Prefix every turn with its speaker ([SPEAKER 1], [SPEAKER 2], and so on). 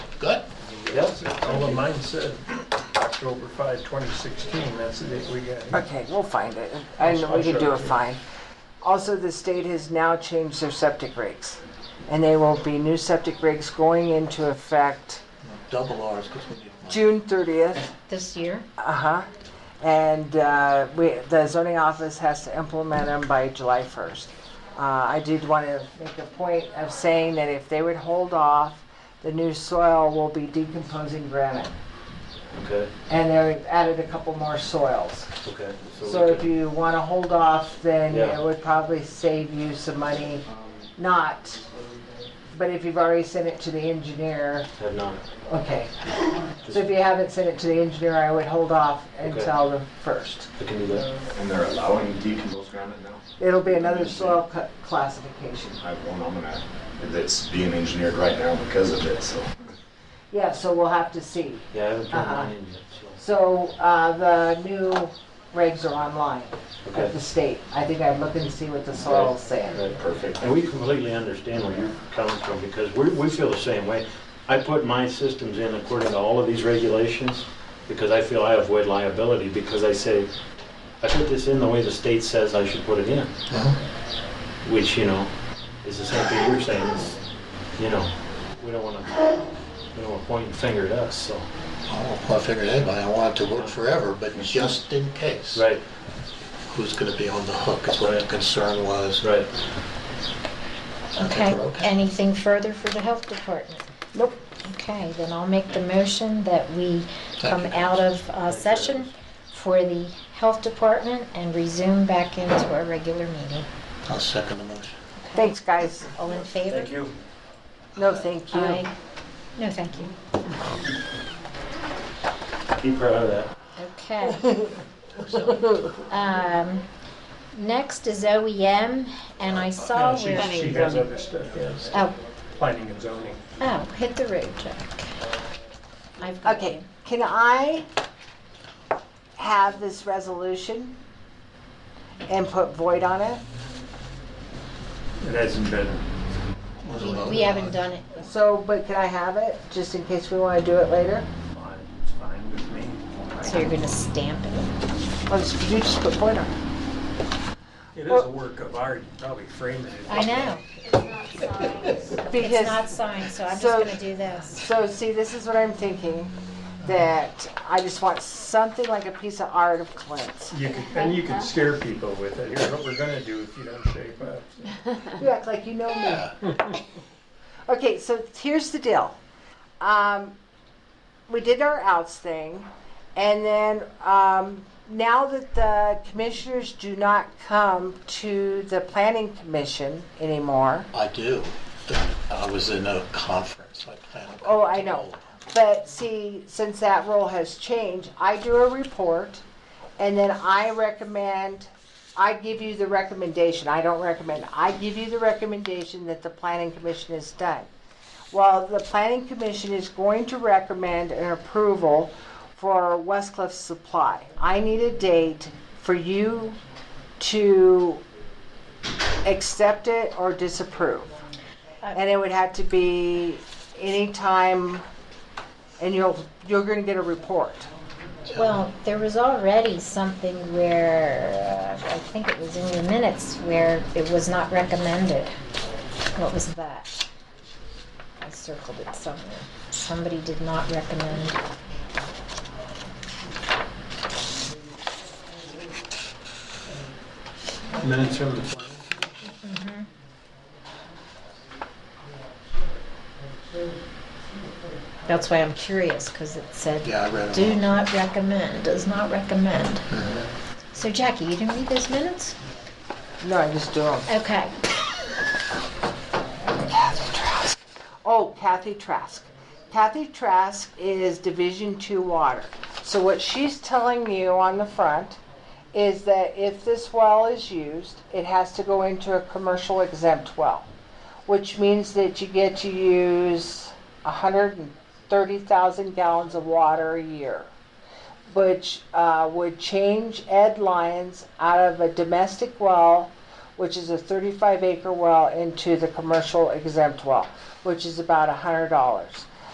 [SPEAKER 1] That's it. All of mine said October 5, 2016, that's the date we got. here.
[SPEAKER 2] Okay, we'll find it. I know we can do a fine. Also, the state has now changed their septic regs. And they will be new septic regs going into effect
[SPEAKER 3] Double R's, because we need money.
[SPEAKER 2] June thirtieth.
[SPEAKER 4] This year?
[SPEAKER 2] Uh-huh. And uh, we, the zoning office has to implement them by July first. Uh, I did want to make a point of saying that if they would hold off, the new soil will be decomposing granite.
[SPEAKER 3] Okay,
[SPEAKER 2] And they've added a couple more soils.
[SPEAKER 3] okay.
[SPEAKER 2] So
[SPEAKER 3] we
[SPEAKER 2] if
[SPEAKER 3] could-
[SPEAKER 2] you want to hold off, then
[SPEAKER 3] Yeah.
[SPEAKER 2] it would probably save you some money. Not, but if you've already sent it to the engineer,
[SPEAKER 3] Have none.
[SPEAKER 2] okay. So if you haven't sent it to the engineer, I would hold off until the first.
[SPEAKER 3] We can do that.
[SPEAKER 5] And they're allowing decomposed granite now?
[SPEAKER 2] It'll be another soil cu- classification.
[SPEAKER 5] I have one on that. It's being engineered right now because of it, so.
[SPEAKER 2] Yeah, so we'll have to see.
[SPEAKER 3] Yeah, I haven't turned
[SPEAKER 2] Uh-huh.
[SPEAKER 3] mine in yet, so.
[SPEAKER 2] So uh, the new regs are online at
[SPEAKER 3] Okay.
[SPEAKER 2] the state. I think I'd look and see what the soil's saying.
[SPEAKER 3] Right.
[SPEAKER 5] Perfect.
[SPEAKER 3] And we completely understand where you're coming from, because we, we feel the same way. I put my systems in according to all of these regulations, because I feel I avoid liability, because I say, I put this in the way the state says I should put it in. Which, you know, is the same thing you're saying, is, you know, we don't wanna, we don't wanna point and finger at us, so.
[SPEAKER 6] I don't want to figure anybody, I want it to work forever, but just in case.
[SPEAKER 3] Right,
[SPEAKER 6] Who's going to be on the hook is what
[SPEAKER 3] Right.
[SPEAKER 6] the concern was.
[SPEAKER 3] right.
[SPEAKER 4] Okay,
[SPEAKER 6] Okay.
[SPEAKER 4] anything further for the health department?
[SPEAKER 2] Nope.
[SPEAKER 4] Okay, then I'll make the motion that we come
[SPEAKER 6] Thank you.
[SPEAKER 4] out of uh, session for the health department and resume back into our regular meeting.
[SPEAKER 6] I'll second the motion.
[SPEAKER 4] Okay?
[SPEAKER 2] Thanks, guys.
[SPEAKER 4] All in favor?
[SPEAKER 3] Thank you.
[SPEAKER 2] No, thank you.
[SPEAKER 4] Aye. No, thank you.
[SPEAKER 3] Keep her out of that.
[SPEAKER 4] Okay. Um, Next is OEM, and I
[SPEAKER 1] Uh,
[SPEAKER 4] saw
[SPEAKER 1] No, she-
[SPEAKER 4] where...
[SPEAKER 1] She has other stuff, yes,
[SPEAKER 4] Oh,
[SPEAKER 1] planning and zoning.
[SPEAKER 4] oh, hit the road, Jack. I've got
[SPEAKER 2] Okay,
[SPEAKER 4] it.
[SPEAKER 2] can I have this resolution and put void on it?
[SPEAKER 1] It hasn't been,
[SPEAKER 4] We haven't done it.
[SPEAKER 2] So, but can I have it, just in case we want to do it later?
[SPEAKER 1] fine. it's fine with me.
[SPEAKER 4] So you're gonna stamp it?
[SPEAKER 2] Let's, you just put void on it.
[SPEAKER 1] It is a work of art, you probably frame it.
[SPEAKER 4] I know. It's not
[SPEAKER 2] Because,
[SPEAKER 4] signed, so I'm just
[SPEAKER 2] So-
[SPEAKER 4] gonna do this.
[SPEAKER 2] so see, this is what I'm thinking, that I just want something like a piece of art of Clint's.
[SPEAKER 1] You could, and you could scare people with it, here's what we're gonna do if you don't shape up.
[SPEAKER 2] You act like you know me. Okay, so here's the deal. Um, we did our outs thing, and then um, now that the commissioners do not come to the planning commission anymore,
[SPEAKER 6] I do. I was in a conference, I planned. on
[SPEAKER 2] Oh,
[SPEAKER 6] going
[SPEAKER 2] I
[SPEAKER 6] to
[SPEAKER 2] know.
[SPEAKER 6] all
[SPEAKER 2] But see, since that rule has changed, I do a report and then I recommend, I give you the recommendation. I don't recommend, I give you the recommendation that the planning commission has done. Well, the planning commission is going to recommend an approval for Westcliff Supply. I need a date for you to accept it or disapprove. And it would have to be any time, and you'll, you're gonna get a report.
[SPEAKER 4] Well, there was already something where, uh, I think it was in your minutes, where it was not recommended. What was that? I circled it somewhere. Somebody did not recommend.
[SPEAKER 1] Minutes from the plan.
[SPEAKER 4] Mm-hmm. That's why I'm curious, because it said,
[SPEAKER 6] Yeah, I read
[SPEAKER 4] do
[SPEAKER 6] them all.
[SPEAKER 4] not recommend, does not recommend. So Jackie, you didn't read those minutes?
[SPEAKER 2] No, I just do them.
[SPEAKER 4] Okay.
[SPEAKER 2] Oh, Kathy Trask. Kathy Trask is Division Two Water. So what she's telling you on the front is that if this well is used, it has to go into a commercial exempt well, which means that you get to use hundred and thirty thousand gallons of water a year, which uh, would change Ed Lyons out of a domestic well which is a 35 acre well into the commercial exempt well, which is about $100.